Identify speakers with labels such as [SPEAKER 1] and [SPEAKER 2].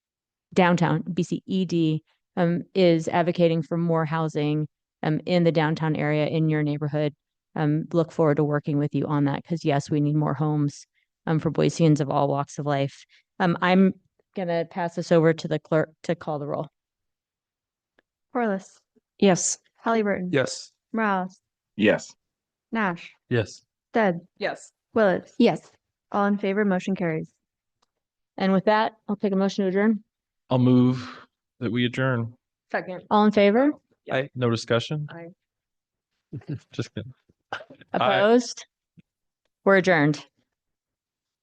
[SPEAKER 1] downtown BCED um, is advocating for more housing um, in the downtown area in your neighborhood. Um, look forward to working with you on that because yes, we need more homes um, for Boiseans of all walks of life. Um, I'm gonna pass this over to the clerk to call the roll.
[SPEAKER 2] Corliss,
[SPEAKER 3] Yes.
[SPEAKER 2] Halliburton.
[SPEAKER 4] Yes.
[SPEAKER 2] Morales,
[SPEAKER 5] Yes.
[SPEAKER 2] Nash,
[SPEAKER 4] Yes.
[SPEAKER 2] Stead,
[SPEAKER 3] Yes.
[SPEAKER 2] Willetts.
[SPEAKER 1] Yes.
[SPEAKER 2] All in favor, motion carries.
[SPEAKER 1] And with that, I'll take a motion to adjourn.
[SPEAKER 4] I'll move that we adjourn.
[SPEAKER 3] Second.
[SPEAKER 1] All in favor?
[SPEAKER 3] Yeah.
[SPEAKER 4] I, no discussion?
[SPEAKER 3] Aye.
[SPEAKER 4] Just kidding. Aye.
[SPEAKER 1] Opposed? We're adjourned.